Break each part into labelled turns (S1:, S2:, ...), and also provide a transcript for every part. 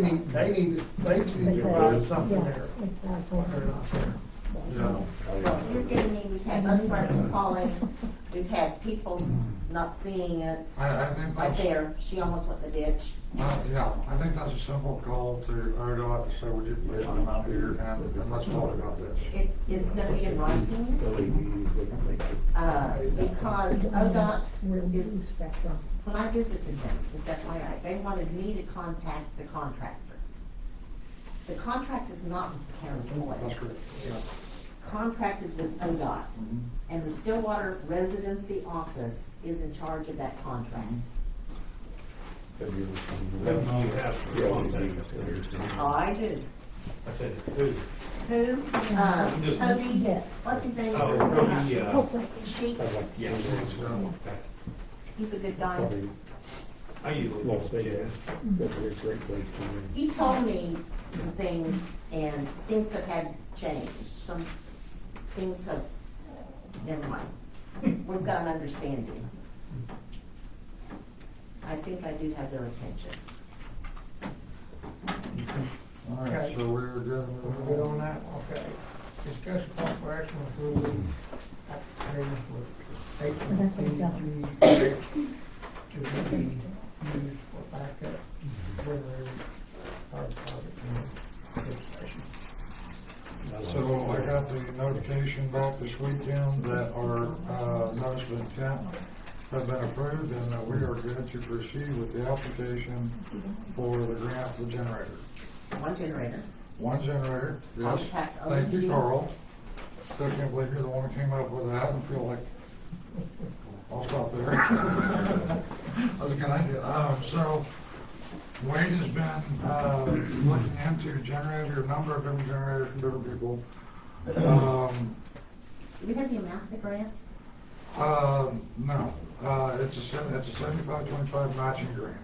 S1: They need, they need, they need to provide something there.
S2: Exactly.
S1: They're not there.
S3: Yeah.
S4: Well, you're getting me, we've had bus drivers calling, we've had people not seeing it,
S3: I, I think
S4: right
S3: that's,
S4: there, she almost went in the ditch.
S3: uh, yeah, I think that's a simple call to ODOT to say, would you please come out here and, and let's talk about this.
S4: It, it's gonna be in writing, uh, because ODOT
S2: We're
S4: Oh, is, when I visited them, is that way, I- they wanted me to contact the contractor. The contract is not with the county
S3: That's
S4: employees,
S3: great, yeah.
S4: contract is with ODOT,
S3: Mhm.
S4: and the Stillwater Residency Office is in charge of that contract. Oh, I do.
S5: I said, who?
S4: Who? Um,
S5: Just-
S4: Toby, what's his name?
S5: Oh, Toby, uh,
S4: Sheets,
S5: Yeah.
S4: he's a good guy.
S5: I usually watch the chest.
S4: He told me some things, and things have had changed, some things have, never mind. We've got an understanding. I think I do have their attention.
S3: All right, so we're good.
S1: We're good on that, okay. Discuss possible action with approval
S3: Mm-hmm.
S1: applications with H and T G H to be used
S3: Mm-hmm.
S1: for backup generator power project in the station.
S3: So I got the notification back this weekend that our, uh, notice of intent has been approved and that we are good to proceed with the application for the grant for the generator.
S4: One generator.
S3: One generator, yes.
S4: Contact
S3: Thank
S4: ONG.
S3: you, Carl. Still can't believe you're the one who came up with that and feel like, I'll stop there. That was a good idea. Um, so Wade has been, uh, looking into generator, a number of different generators from different people. Um,
S4: Do we have the amount of the grant?
S3: um, no, uh, it's a seven, it's a seventy-five, twenty-five matching grant.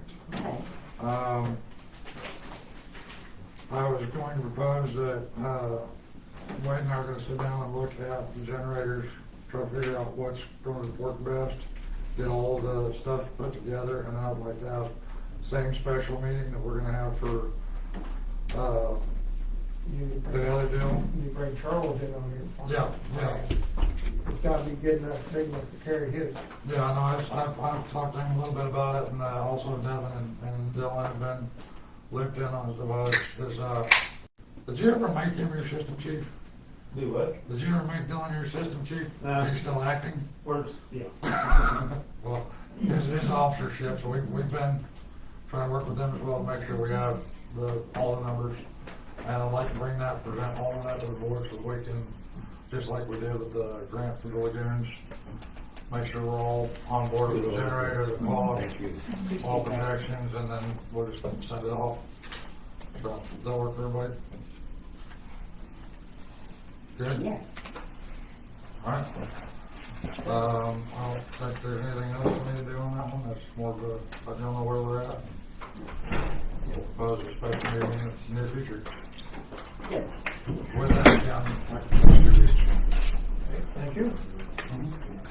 S4: Okay.
S3: Um, I was going to propose that, uh, Wade and I are gonna sit down and look at the generators, try to figure out what's gonna work best, get all the stuff put together, and I'd like to have same special meeting that we're gonna have for, uh,
S1: You-
S3: the other deal.
S1: You bring Charles in on here.
S3: Yeah, yeah,
S1: It's gotta be good enough, big enough to carry his.
S3: yeah, I know, I've, I've, I've talked to him a little bit about it, and, uh, also Devin and- and Dylan have been looped in on his device, is, uh, did you ever make him your system chief?
S5: Do what?
S3: Did you ever make Dylan your assistant chief?
S5: No.
S3: He's still acting?
S5: Works, yeah.
S3: Well, his, his officership, so we, we've been trying to work with them as well to make sure we have the, all the numbers. And I'd like to bring that, present all of that to the board so we can, just like we did with the grant for the lagoons, make sure we're all on board with the generator, the cost, all protections, and then we'll just send it off. So, does that work for everybody? Good?
S4: Yes.
S3: All right. Um, I don't think there's anything else we need to do on that one. That's more of a, I don't know where we're at. Suppose it's supposed to be in the near future.
S4: Good.
S3: With that, John, I can introduce you.
S1: Thank you.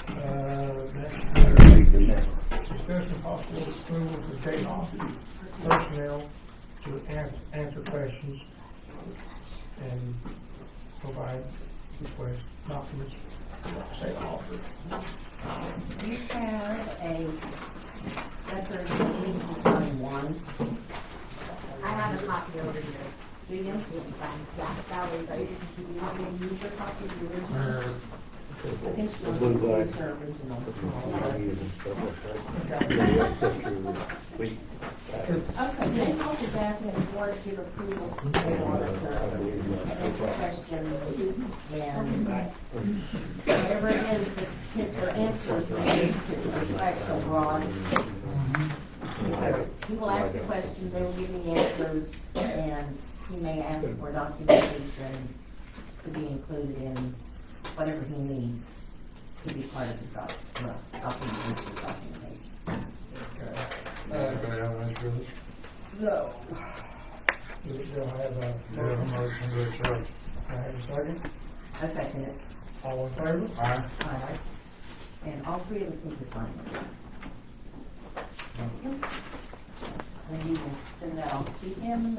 S1: Uh, next, uh, Discussion possible approval to take off personnel to an- answer questions and provide request documents, say offer.
S4: We have a record of Region Design One. I have a copy over here. Do you? Yeah, that was, I didn't, do you want me to use your copy of the original?
S3: Uh,
S4: I think she was
S6: Blue black.
S4: her original. Okay, then I'll just ask the board to give approval to the auditor and the questions and whatever it is that his- their answers made to reflect so broad. Because he will ask the question, they will give the answers, and he may ask for documentation to be included in whatever he needs to be part of his doc, uh, documentation, documentation.
S3: Anybody have any issues?
S4: No.
S1: Do we still have a,
S3: Do you have a
S1: do
S3: motion to accept?
S1: I have a second?
S4: I second it.
S1: All in favor?
S3: Aye.
S4: Aye. And all three of us need to sign it. And you will send that off to him,